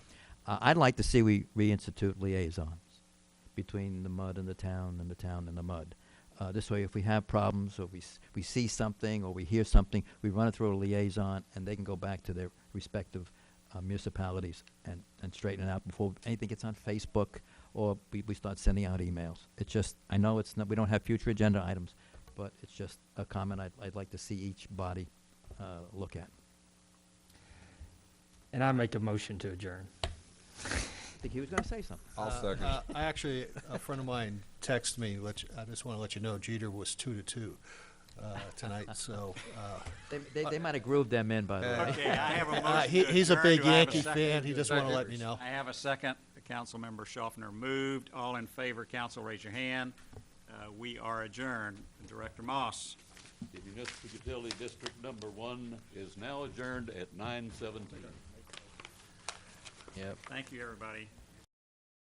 Uh, I'd like to see we reinstitute liaisons between the mud and the town and the town and the mud. Uh, this way, if we have problems or we, s- we see something or we hear something, we run it through a liaison and they can go back to their respective uh, municipalities and, and straighten it out before anything gets on Facebook or we, we start sending out emails. It's just, I know it's not, we don't have future agenda items, but it's just a comment I'd, I'd like to see each body uh, look at. And I make a motion to adjourn. I think he was going to say something. I'll Uh, second. uh, I actually, a friend of mine texted me, let you, I just want to let you know Jeter was two to two uh, tonight, so. uh, They, they, they might have grooved them in, by the way. Okay, I have a uh, motion he- to He's a adjourn. big Do I have a Yankee second? fan, he just want to let me know. I have a second. Councilmember Schaffner moved. All in favor, council, raise your hand. Uh, We are adjourned. Director Moss. The municipal utility district number one is now adjourned at nine seventeen. Yep. Thank you, everybody.